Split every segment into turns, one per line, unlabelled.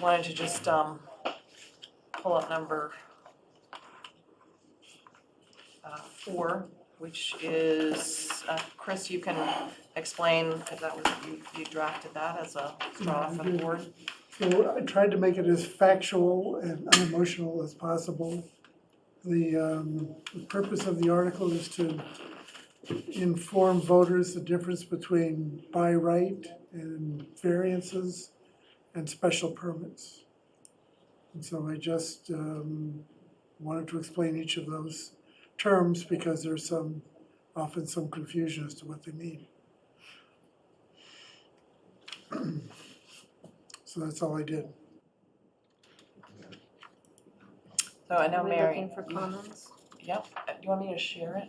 wanted to just, um, pull up number uh, four, which is, uh, Chris, you can explain, because that was, you, you drafted that as a draw for the board.
So I tried to make it as factual and unemotional as possible. The, um, the purpose of the article is to inform voters the difference between by right and variances and special permits. And so I just, um, wanted to explain each of those terms because there's some, often some confusion as to what they mean. So that's all I did.
So I know
Are we
Mary.
looking for
you-
comments?
Yep, Uh, do you want me to share it?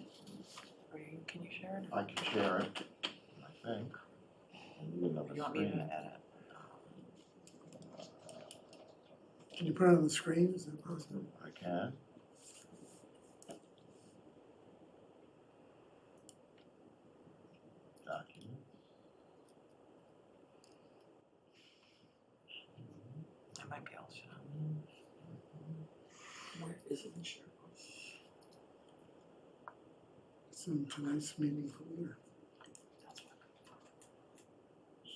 Or you, can you share it?
I can share it, I think. I need another
Or you want me to
screen.
edit?
Can you put it on the screen? Is that possible?
I can. Document.
I might be able to.
Where is it in Sherwood?
It's in tonight's meeting folder.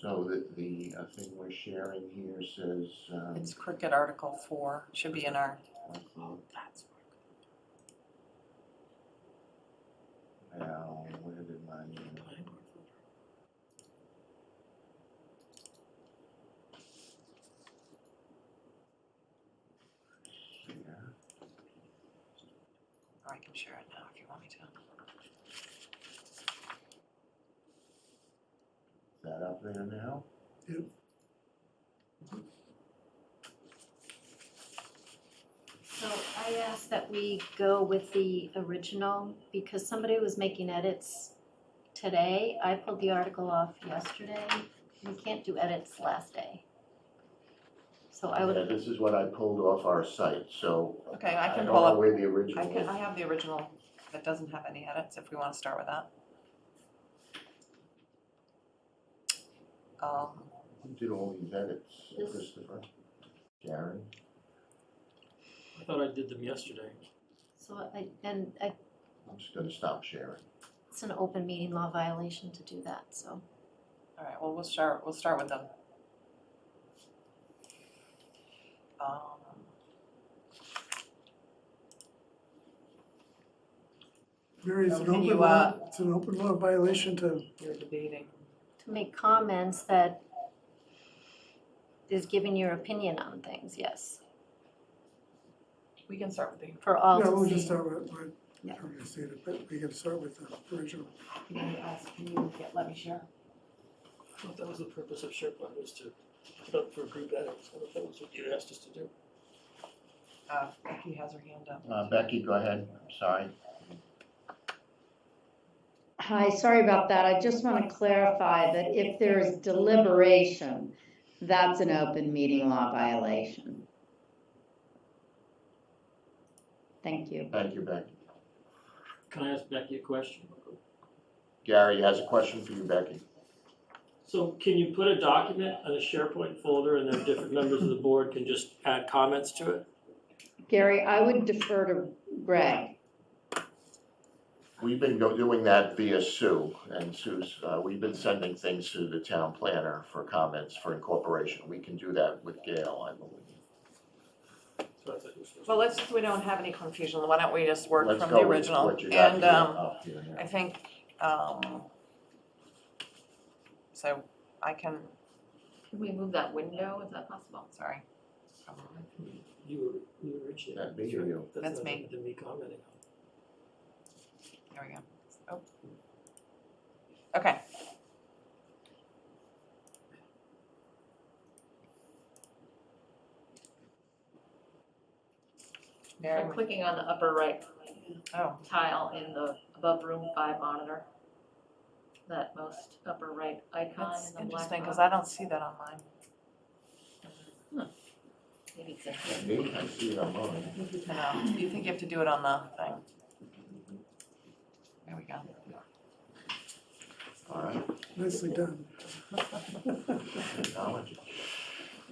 So the, the uh, thing we're sharing here says, um,
It's cricket article four, should be in our,
upload
That's
now, where did my, uh,
where.
here?
or I can share it now if you want me to.
Is that up there now?
Yep.
So I asked that we go with the original because somebody was making edits today. I pulled the article off yesterday. We can't do edits last day. So I
Yeah,
would,
this is what I pulled off our site, so.
Okay, I can
don't
pull
know
up,
where the original
I can,
is.
I have the original that doesn't have any edits, if we wanna start with that. Um,
Who did all these edits,
This-
Christopher? Karen?
I thought I did them yesterday.
so I, and I,
I'm just gonna stop sharing.
it's an open meeting law violation to do that, so.
All right, well, we'll start, we'll start with them. Um,
Mary, it's an
Okay, you,
open law,
uh,
it's an open law violation to,
You're debating.
To make comments that is giving your opinion on things, yes,
We can start with the,
for
yeah,
all to see.
we'll just start with, with,
Yeah.
I'm gonna say it, but we can start with the original.
can you ask, can you get, let me share?
I thought that was the purpose of SharePoint, was to put up for group edits. I thought that was what you asked us to do.
Uh, Becky has her hand up.
Uh, Becky, go ahead, I'm sorry.
Hi, sorry about that. I just want to clarify that if there's deliberation, that's an open meeting law violation. Thank you.
Thank you, Becky.
Can I ask Becky a question?
Gary has a question for you, Becky.
So can you put a document on a SharePoint folder and then different members of the board can just add comments to it?
Gary, I would defer to Greg.
We've been go- doing that via Sue, and Sue's, uh, we've been sending things to the town planner for comments for incorporation. We can do that with Gail, I believe.
So I thought you were-
Well, let's, if we don't have any confusion, why don't we just work
Let's
from
go
the
with
original?
what you got
And,
here,
um,
up here now.
I think, um, so I can,
Can we move that window, is that possible?
sorry. Um,
You were, you were reaching.
That me or you?
That's
not
me.
the me commenting on. it.
There we go. Oh. Okay. Mary,
I'm clicking on the upper right
oh,
tile in the above room five monitor. That most upper right icon
that's
in the black
interesting, because
box.
I don't see that on mine.
Maybe it's in here.
Yeah, Me, I see it on mine.
I know, you think you have to do it on the thing. There we go.
All right,
Nicely done.
technology.